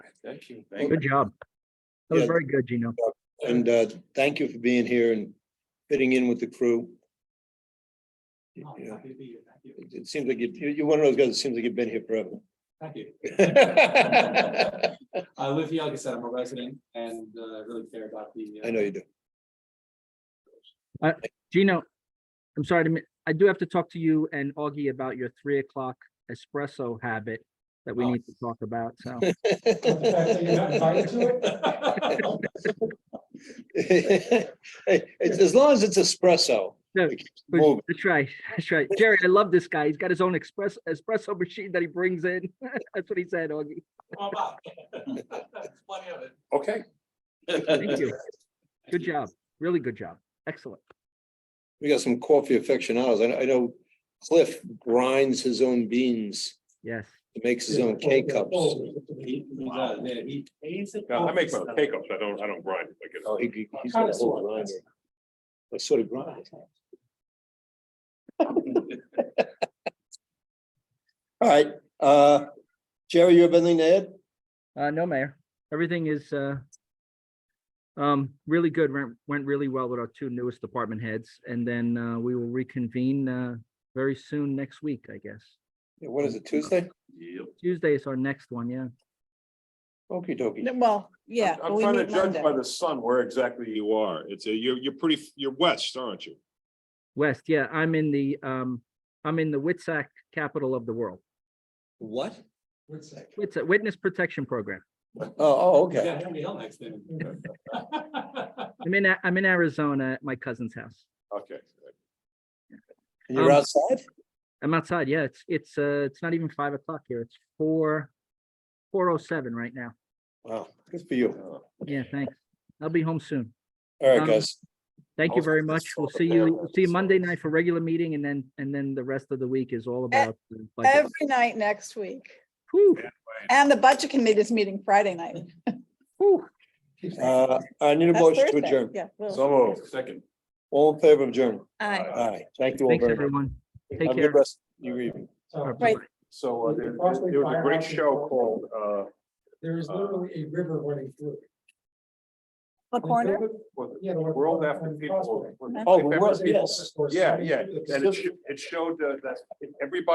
Thank you. Good job. That was Yeah. very good, Gino. And uh, thank you for being here and fitting in with the crew. Oh, Yeah, Thank It it seems like you- you- you're one of those guys that seems like you've been here forever. you. I live here, like I said, I'm a resident and uh, really care about the. uh, I know you do. Gino, I'm sorry to, mi- I do have to talk to you and Augie about your three o'clock espresso habit that we Oh. need to talk about, so. the fact that you're not invited to it. Hey, it's- As long as it's espresso. No, it keeps But moving. That's right, that's right. Jerry, I love this guy. He's got his own express espresso machine that he brings in. That's what he said, Augie. Come on by. Plenty of it. Okay. Thank you. Good job. Really good job. Excellent. We got some coffee aficionados. I know- I know Cliff grinds his own beans, Yes. makes his own K cups. Oh, He- he does, yeah, he- No, I make my own cake ups. I don't, I don't grind. like it's- he- he- he's got a whole grinder. Like sort of grind. All right, uh, Jerry, you have anything to add? Uh, no, Mayor. Everything is, uh, um, really good. Went, went really well with our two newest department heads. And then, uh, we will reconvene, uh, very soon next week, I guess. Yeah, What is it, Tuesday? Yep. Tuesday is our next one, yeah. Okey dokey. No, Well, yeah. but I'm we trying to meet judge Monday. by the sun where exactly you are. It's a, you're, you're pretty, you're west, aren't you? West, yeah, I'm in the, um, I'm in the Witsac capital of the world. What? It's a witness protection program. Oh, oh, Yeah, okay. Henry Hill next thing. I'm in, A- I'm in Arizona at my cousin's house. Okay. And You're Um, outside? I'm outside, yeah, it's, it's, uh, it's not even five o'clock here. It's four, four oh seven right now. Wow, good for you. Yeah, thanks. I'll be home soon. All Um, right, guys. Thank you Also, very this much. is We'll all see about you, we'll see you the Monday results. night for regular meeting and then, and then the rest of the week is E all about. the budget. Every night next week. Whew, And the budget committee is meeting Friday night. whew. Uh, I need a That's motion to Thursday. adjourn. Yeah. we'll- So second. All in favor of adjourn? Aye. All right, thank you all Thanks, very much. everyone. Take Have a care. good rest of your evening. Right. So uh, there, there was a great show called, uh, There is Uh, literally a river running through. it. The corner, was it Yeah, the one- World After on People. Prospect. was it Oh, Cape well, Epic? yes. Of course, Yeah, running yeah. through it. And it, sho- it showed uh, that everybody